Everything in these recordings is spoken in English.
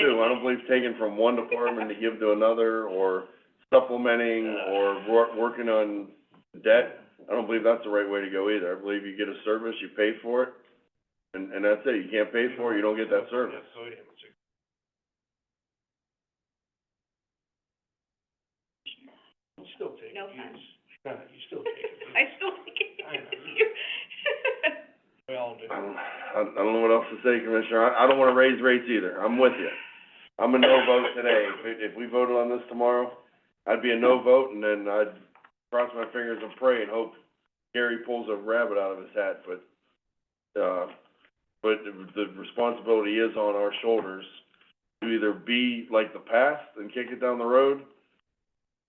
too, I don't believe taking from one department to give to another, or supplementing, or wor- working on debt. I don't believe that's the right way to go either, I believe you get a service, you pay for it, and, and that's it, you can't pay for it, you don't get that service. You still take No abuse. offense. No, you still take abuse. I still think I know. it's. We all do. I don't, I, I don't know what else to say, Commissioner, I, I don't wanna raise rates either, I'm with you. I'm a no vote today, if, we- if we voted on this tomorrow, I'd be a no vote, and then I'd cross my fingers and pray and hope Gary pulls a rabbit out of his hat, but, uh, but the- the responsibility is on our shoulders to either be like the past and kick it down the road,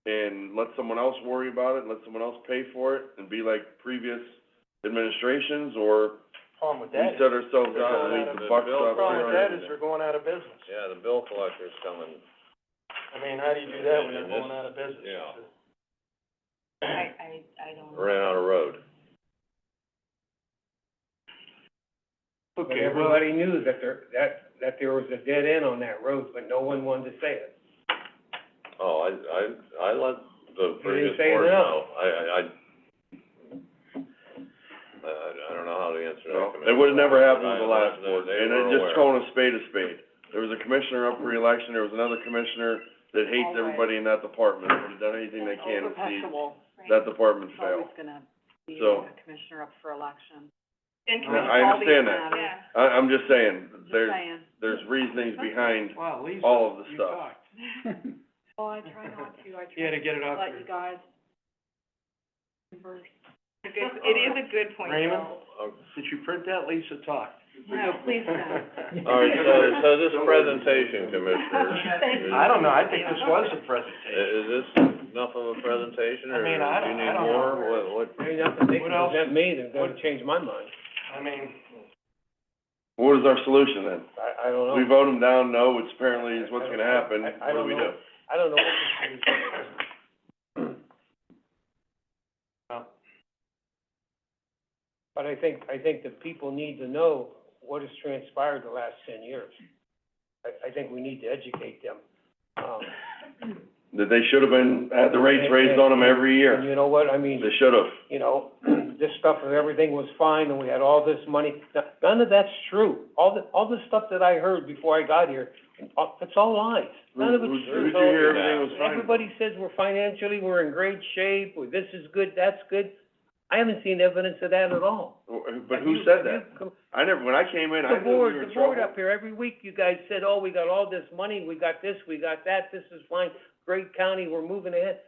and let someone else worry about it, let someone else pay for it, and be like previous administrations, or Problem with we that is, set ourselves They're out, going leave out of the the buck bill. stop problem with that there. is we're going out of business. Yeah, the bill collector's coming, I mean, how do you do that when you're Yeah, this- going out of business? yeah. I, I, I don't know. ran out of road. But everybody knew that there, that, that there was a dead end on that road, but no one wanted to say it. Oh, I, I, I let the didn't previous say board no. know. I, I, I, I, I don't know how to answer that. Well, Commissioner. It would've never happened with the I- last they- board, they and were it just aware. calling a spade a spade. There was a commissioner up for election, there was another commissioner that hates Always. everybody in that department, would've done anything they can to see Overpassable. that department It's fail. always gonna be So- a commissioner up for election. Then can I- we, I understand that. yeah, I, I'm just saying, Just there, saying. there's reasonings behind, Wow, Lisa, All of the you stuff. talked. Well, Oh, I try not to, I You had try to get it to off let you your, guys converse. a good, it is a good point, Raymond? though. did you print that? Lisa talked. No, please don't. All right, so, so this presentation, Commissioners, is, I don't know, I think this was a presentation. is this enough of a I presentation, or do mean, you I don't- I need don't know. more? What, what? Maybe that's what they What else? present me, that's gonna What- change my mind. Uh, I mean, what is our solution then? I, I don't know. We vote them down, no, which apparently is what's gonna happen, I- I what do we don't know. do? I don't know what this is. Well. But I think, I think the people need to know what has transpired the last ten years. I, I think we need to educate them. Um, That they should've been, had the rates raised on them every and year, you know what, I mean, they should've. you know, this stuff and everything was fine and we had all this money. N- None of that's true. All the, all the stuff that I heard before I got here, uh, it's all lies. None of Who- it's who- true. Who'd you hear So- everything was fine? Everybody says we're financially, we're in great shape, well, this is good, that's good. I haven't seen evidence of that at all. But Have who you- said have that? you com- I never, when I came in, The I knew we board, were in the board trouble. up here, every week you guys said, oh, we got all this money, we got this, we got that, this is fine, great county, we're moving ahead.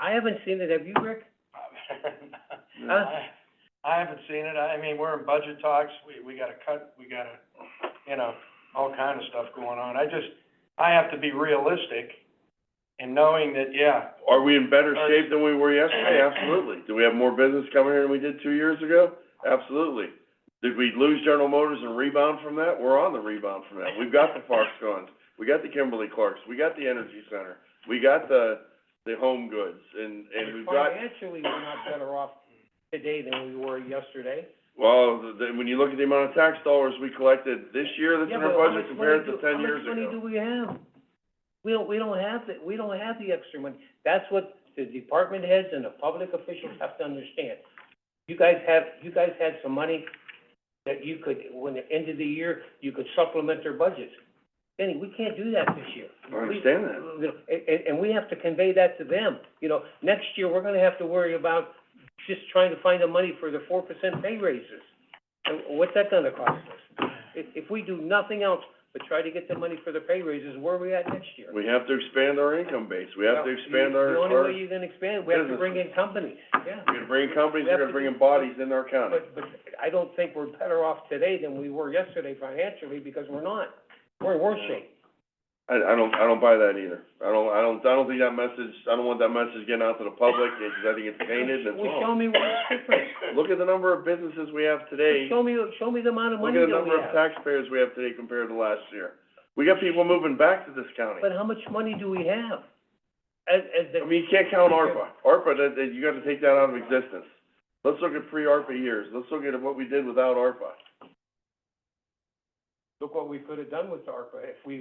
I haven't seen it, have you, Rick? I, I haven't seen it, I, I mean, we're in budget talks, we, we gotta cut, we gotta, you know, all kind of stuff going on. I just, I have to be realistic in knowing that, yeah, Are we in better Uh, shape than we were yesterday? Absolutely. Do we have more business coming here than we did two years ago? Absolutely. Did we lose General Motors and rebound from that? We're on the rebound from that. We've got the Foxcons, we got the Kimberly Clarks, we got the Energy Center, we got the, the Home Goods, and, and we've got, Financially, we're not better off today than we were yesterday. well, the, the- when you look at the amount of tax dollars we collected this year that's in our budget compared to ten years Yeah, but how much money do, how much money do ago. we have? We don't, we don't have the, we don't have the extra money. That's what the department heads and the public officials have to understand. You guys have, you guys had some money that you could, when the end of the year, you could supplement their budgets. Benny, we can't do that this year. I understand that. You know, and, and, and we have to convey that to them. You know, next year, we're gonna have to worry about just trying to find the money for the four percent pay raises. And what's that gonna cost us? If, if we do nothing else but try to get the money for the pay raises, where are we at next year? We have to expand our income base, we have to Well, expand you- our, The our, only way we're you can expand, we have to bring in companies, yeah. gonna bring companies, We we're have gonna to bring do- in bodies in our county. But, but I don't think we're better off today than we were yesterday financially, because we're not. We're in worse shape. I, I don't, I don't buy that either. I don't, I don't, I don't think that message, I don't want that message getting out to the public, because I think it's tainted and it's Well, show wrong. me what's different. Look at the number of businesses we have today, Show me, show me the amount of look money at that the number we of have. taxpayers we have today compared to last year. We got people moving back to this county. But how much money do we have? As, as I the. mean, you can't count ARPA. ARPA, that, that, you gotta take that out of existence. Let's look at pre-ARPA years, let's look at what we did without ARPA. Look what we could have done with ARPA if we